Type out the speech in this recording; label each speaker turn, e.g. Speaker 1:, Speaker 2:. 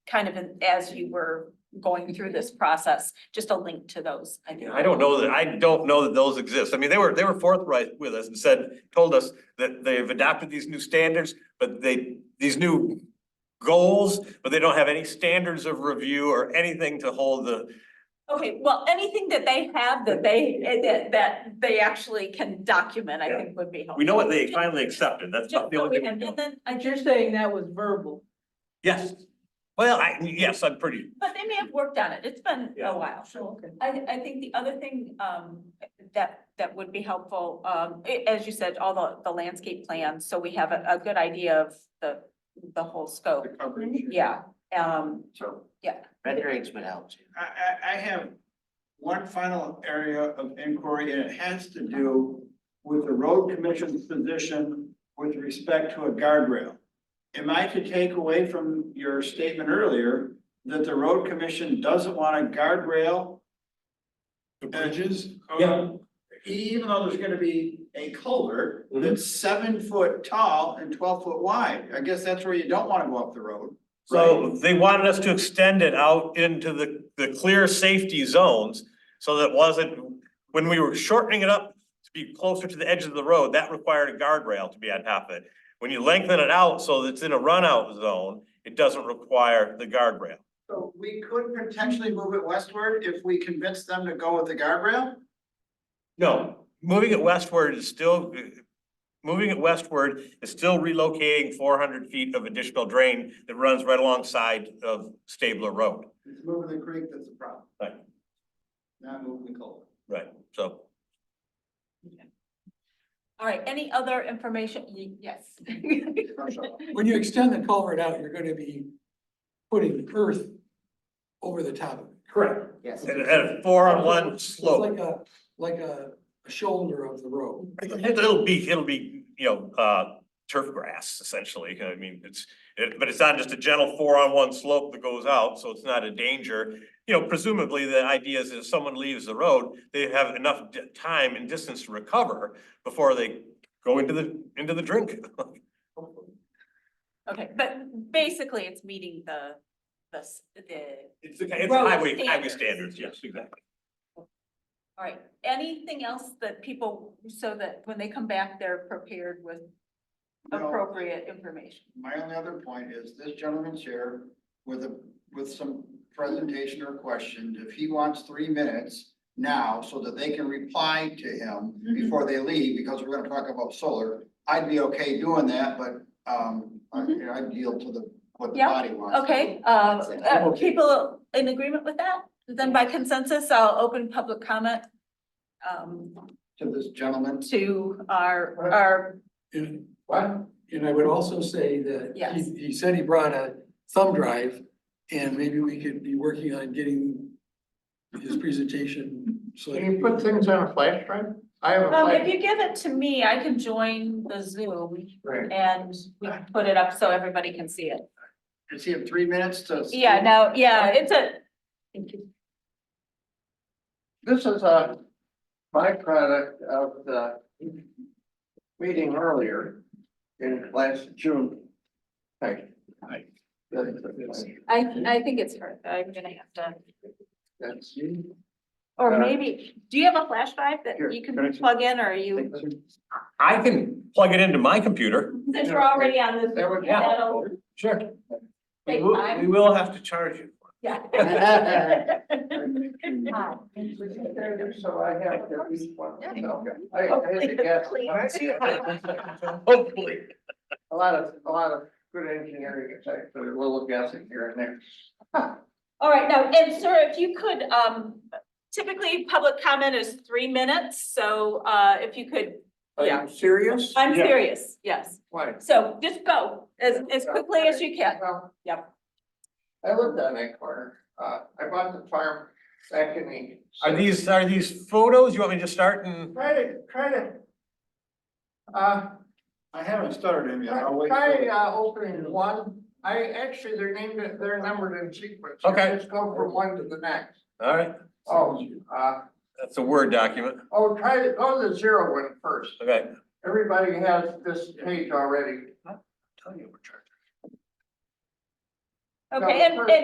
Speaker 1: kind of in- as you were going through this process, just a link to those. I think.
Speaker 2: I don't know that, I don't know that those exist. I mean, they were, they were forthright with us and said, told us that they've adopted these new standards, but they, these new goals, but they don't have any standards of review or anything to hold the,
Speaker 1: Okay, well, anything that they have that they, that, that they actually can document, I
Speaker 2: Yeah.
Speaker 1: think would be helpful.
Speaker 2: we know what they finally accepted. That's
Speaker 1: Just
Speaker 2: about the
Speaker 1: so
Speaker 2: only
Speaker 1: we
Speaker 2: thing. we
Speaker 1: have-
Speaker 2: know.
Speaker 1: And then I
Speaker 3: You're
Speaker 1: just,
Speaker 3: saying that was verbal.
Speaker 2: Yes. Well, I, yes, I'm pretty,
Speaker 1: but they may have worked on it. It's been
Speaker 2: Yeah.
Speaker 1: a while.
Speaker 3: Okay.
Speaker 1: I, I think the other thing, um, that, that would be helpful, um, a- as you said, all the, the landscape plans, so we have a, a good idea of the, the whole scope. Yeah, um,
Speaker 4: So
Speaker 5: Renderings would help too.
Speaker 4: I, I, I have one final area of inquiry and it has to do with the road commission's position with respect to a guardrail. Am I to take away from your statement earlier that the road commission doesn't want a guardrail? The bridges?
Speaker 2: Yeah.
Speaker 4: E, Even though there's gonna be a culvert
Speaker 2: Mhm.
Speaker 4: that's seven foot tall and twelve foot wide, I guess that's where you don't wanna go up the road.
Speaker 2: so they wanted us to extend it out into the, the clear safety zones. So that wasn't, when we were shortening it up to be closer to the edge of the road, that required a guardrail to be on top of it. When you lengthen it out so that it's in a runout zone, it doesn't require the guardrail.
Speaker 4: So we could potentially move it westward if we convince them to go with the guardrail?
Speaker 2: No, moving it westward is still, moving it westward is still relocating four hundred feet of additional drain that runs right alongside of Stabler Road.
Speaker 4: It's moving the creek that's the problem.
Speaker 2: Right.
Speaker 4: Not moving the culvert.
Speaker 2: Right, so
Speaker 1: all right, any other information? Y- Yes.
Speaker 6: When you extend the culvert out, you're gonna be putting earth over the top of it.
Speaker 2: Correct.
Speaker 5: Yes.
Speaker 2: And at a four on one
Speaker 6: It's
Speaker 2: slope,
Speaker 6: Like a, like a a shoulder of the road.
Speaker 2: it'll be, it'll be, you know, uh, turf grass essentially. I mean, it's, it, but it's not just a gentle four on one slope that goes out, so it's not a danger. You know, presumably the idea is if someone leaves the road, they have enough di- time and distance to recover before they go into the, into the drink.
Speaker 1: Okay, but basically it's meeting the, the, s- the
Speaker 2: It's, the- it's
Speaker 1: Road
Speaker 2: highway, highway
Speaker 1: standards.
Speaker 2: standards, yes, exactly.
Speaker 1: All right, anything else that people, so that when they come back, they're prepared with
Speaker 4: No.
Speaker 1: appropriate information?
Speaker 4: My only other point is this gentleman's here with a, with some presentation or questions. If he wants three minutes now so that they can reply to him
Speaker 1: Mm-hmm.
Speaker 4: before they leave, because we're gonna talk about solar, I'd be okay doing that, but, um, I, I'd yield to the, what
Speaker 1: Mm-hmm.
Speaker 4: the
Speaker 1: Yeah,
Speaker 4: body wants.
Speaker 1: Okay, um,
Speaker 4: it.
Speaker 1: uh, people in agreement with that? Then by consensus, I'll open public comment um,
Speaker 4: To this gentleman.
Speaker 1: to our, our,
Speaker 6: And,
Speaker 4: What?
Speaker 6: and I would also say that
Speaker 1: Yes.
Speaker 6: he, he said he brought a thumb drive and maybe we could be working on getting his presentation. So
Speaker 7: Can you put things on a flash drive? I have a
Speaker 1: um, if
Speaker 7: flash.
Speaker 1: you give it to me, I can join the Zoom
Speaker 7: Right.
Speaker 1: and we can put it up so everybody can see it.
Speaker 4: Does he have three minutes to?
Speaker 1: Yeah, no, yeah, it's a,
Speaker 7: This is a byproduct of the meeting earlier in last June. Right.
Speaker 4: Right.
Speaker 1: I, I think it's her. I'm gonna have to.
Speaker 7: That's.
Speaker 1: Or
Speaker 7: Uh,
Speaker 1: maybe, do you have a flash drive that
Speaker 7: here,
Speaker 1: you
Speaker 7: can I
Speaker 1: can
Speaker 7: just-
Speaker 1: plug in or are you,
Speaker 7: That
Speaker 2: I can plug it into my computer.
Speaker 1: since we're already on this,
Speaker 7: would.
Speaker 1: that'll
Speaker 2: Sure.
Speaker 1: take time?
Speaker 2: will have to charge you.
Speaker 1: Yeah.
Speaker 7: So I have to at least one. I, I had to guess.
Speaker 2: Hopefully.
Speaker 7: A lot of, a lot of good engineering, it's actually a little guessing here and there.
Speaker 1: All right, now, and sir, if you could, um, typically public comment is three minutes, so, uh, if you could,
Speaker 7: Are
Speaker 1: Yeah.
Speaker 7: you serious?
Speaker 1: I'm serious, yes.
Speaker 7: Why?
Speaker 1: So just go as, as quickly as you can.
Speaker 7: Well,
Speaker 1: Yep.
Speaker 7: I lived on that corner. Uh, I bought the farm back in the.
Speaker 2: Are these, are these photos? You want me to just start and?
Speaker 7: Try to, try to. Uh,
Speaker 4: I haven't started him yet. I'll
Speaker 7: try,
Speaker 4: wait. till-
Speaker 7: try, uh, opening one. I actually, they're named, they're numbered in sequence. You
Speaker 2: Okay.
Speaker 7: Just go from one to the next.
Speaker 2: All right,
Speaker 7: Oh, uh,
Speaker 2: that's a Word document.
Speaker 7: oh, try to, go to the zero one first.
Speaker 2: Okay.
Speaker 7: Everybody has this page already.
Speaker 2: Tell you we're charging.
Speaker 1: Okay, and, and